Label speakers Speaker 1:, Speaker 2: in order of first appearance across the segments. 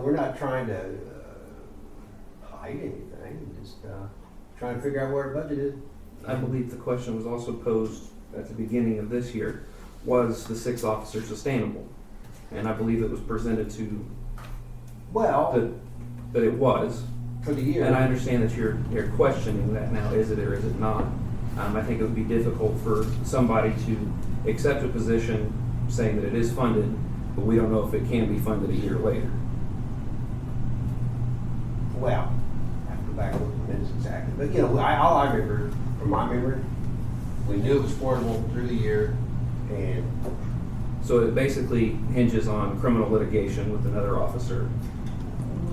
Speaker 1: we're not trying to uh, hide anything, just uh, trying to figure out where our budget is.
Speaker 2: I believe the question was also posed at the beginning of this year, was the sixth officer sustainable? And I believe it was presented to,
Speaker 1: Well,
Speaker 2: that, that it was.
Speaker 1: for the year.
Speaker 2: And I understand that you're, you're questioning that now, is it or is it not? Um, I think it would be difficult for somebody to accept a position saying that it is funded, but we don't know if it can be funded a year later.
Speaker 1: well, I have to go back and look at the minutes exactly, but you know, I, all I remember, from my memory, we knew it was portable through the year, and
Speaker 2: So it basically hinges on criminal litigation with another officer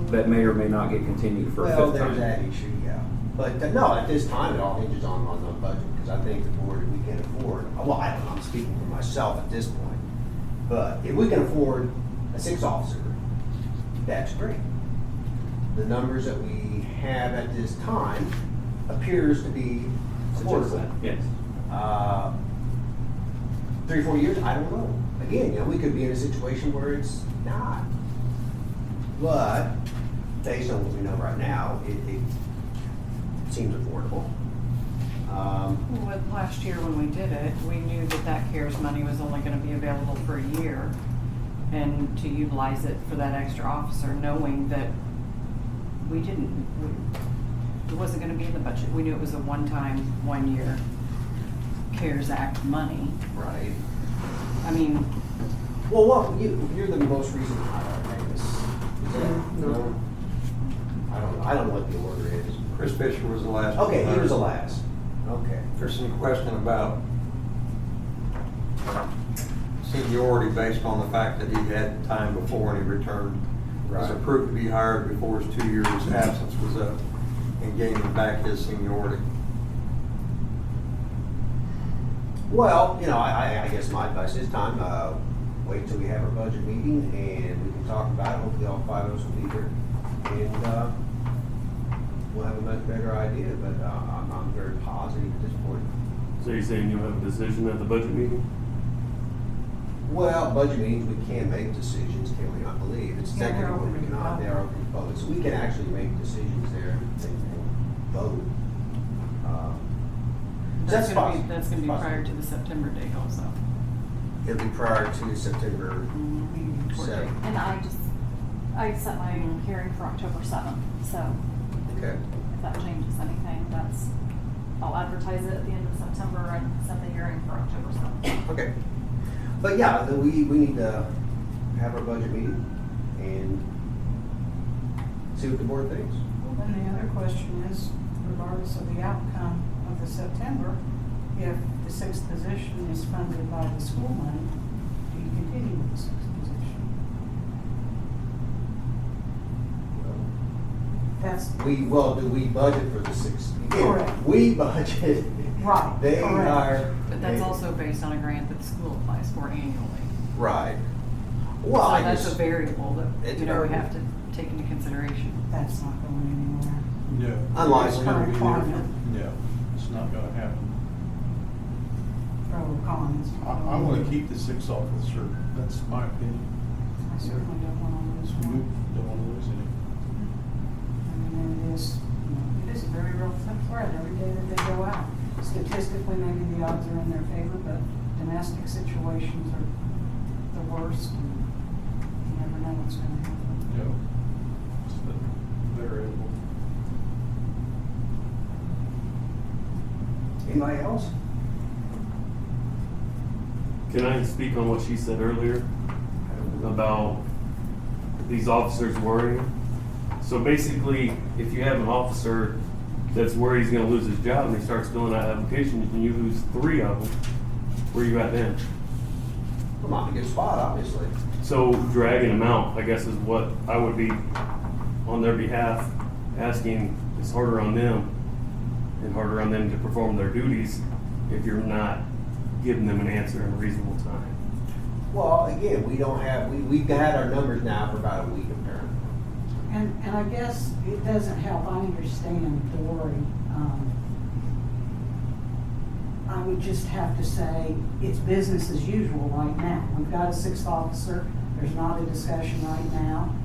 Speaker 2: that may or may not get continued for a
Speaker 1: well,
Speaker 2: fifth
Speaker 1: there's
Speaker 2: time.
Speaker 1: that issue, yeah. But uh, no, at this time, it all hinges on on the budget because I think the board, we can afford. Well, I don't know. I'm speaking for myself at this point, but if we can afford a six officer, that's great. The numbers that we have at this time appears to be
Speaker 2: Suggest
Speaker 1: affordable.
Speaker 2: that, yes.
Speaker 1: Uh, three, four years, I don't know. Again, you know, we could be in a situation where it's not. But based on what we know right now, it, it seems affordable. Um,
Speaker 3: With last year when we did it, we knew that that CARES money was only gonna be available for a year and to utilize it for that extra officer, knowing that we didn't, we- it wasn't gonna be in the budget. We knew it was a one-time, one-year CARES Act money.
Speaker 1: right.
Speaker 3: I mean,
Speaker 1: Well, what you, you're the most recent hire, I guess. Is that,
Speaker 2: No.
Speaker 1: no? I don't, I don't know what the order is.
Speaker 4: Chris Fisher was the last. one
Speaker 1: Okay, he was the
Speaker 4: hired.
Speaker 1: last. Okay.
Speaker 4: There's some question about seniority based on the fact that he had time before and he returned. Was
Speaker 1: Right.
Speaker 4: approved to be hired before his two years absence was up and gaining back his seniority.
Speaker 1: Well, you know, I, I- I guess my advice this time, uh, wait till we have our budget meeting and we can talk about it. Hopefully all five of us will be here. And, uh, we'll have a much better idea, but, uh, I'm, I'm very positive at this point.
Speaker 5: So you're saying you'll have a decision at the budget meeting?
Speaker 1: Well, budget meetings, we can make decisions, can we not believe? It's
Speaker 3: Yeah, they're
Speaker 1: technically
Speaker 3: open to
Speaker 1: we cannot,
Speaker 3: public.
Speaker 1: they are open to public, so we can actually make decisions there and things and vote. Um,
Speaker 3: that's
Speaker 1: That's
Speaker 3: gonna be,
Speaker 1: possible.
Speaker 3: that's gonna be
Speaker 1: Possible.
Speaker 3: prior to the September date also.
Speaker 1: It'll be prior to September Mm-hmm.
Speaker 3: Court date.
Speaker 1: seventh,
Speaker 6: And I just, I set my hearing for October seventh, so
Speaker 1: okay?
Speaker 6: if that changes anything, that's, I'll advertise it at the end of September and set the hearing for October seventh.
Speaker 1: Okay. But yeah, the, we, we need to have our budget meeting and see what the board thinks.
Speaker 7: Well, then the other question is, regardless of the outcome of the September, if the sixth position is funded by the school money, do you continue with the sixth position? That's,
Speaker 1: We, well, do we budget for the six?
Speaker 7: Correct.
Speaker 1: We budget.
Speaker 7: Right,
Speaker 1: They
Speaker 7: correct.
Speaker 1: are.
Speaker 3: But that's also based on a grant that the school applies for annually.
Speaker 1: Right. Well, I
Speaker 3: So that's a
Speaker 1: just,
Speaker 3: variable that,
Speaker 1: It's
Speaker 3: you know, we
Speaker 1: variable.
Speaker 3: have to take into consideration.
Speaker 7: that's not going anywhere.
Speaker 8: No.
Speaker 1: Unlikely.
Speaker 7: It's Current climate,
Speaker 8: No, it's not gonna happen.
Speaker 7: pro or con. it's
Speaker 8: I, I wanna keep the six officer, that's my opinion.
Speaker 7: I certainly don't wanna lose
Speaker 8: We
Speaker 7: one.
Speaker 8: don't wanna lose any.
Speaker 7: I mean, it is, you know, it is a very real threat every day that they go out. Statistically, maybe the odds are in their favor, but domestic situations are the worst. and You never know what's gonna happen.
Speaker 8: No. It's the variable.
Speaker 1: anybody else?
Speaker 5: Can I speak on what she said earlier about these officers worrying? So basically, if you have an officer that's worried he's gonna lose his job and he starts filling out applications and you lose three of them, where you at then?
Speaker 1: I'm not in a good spot, obviously.
Speaker 5: So dragging them out, I guess, is what I would be on their behalf asking. It's harder on them and harder on them to perform their duties if you're not giving them an answer in a reasonable time.
Speaker 1: Well, again, we don't have, we, we've had our numbers now for about a week apparently.
Speaker 7: And, and I guess it doesn't help, I understand the worry. um, I would just have to say, it's business as usual right now. We've got a sixth officer, there's not a discussion right now.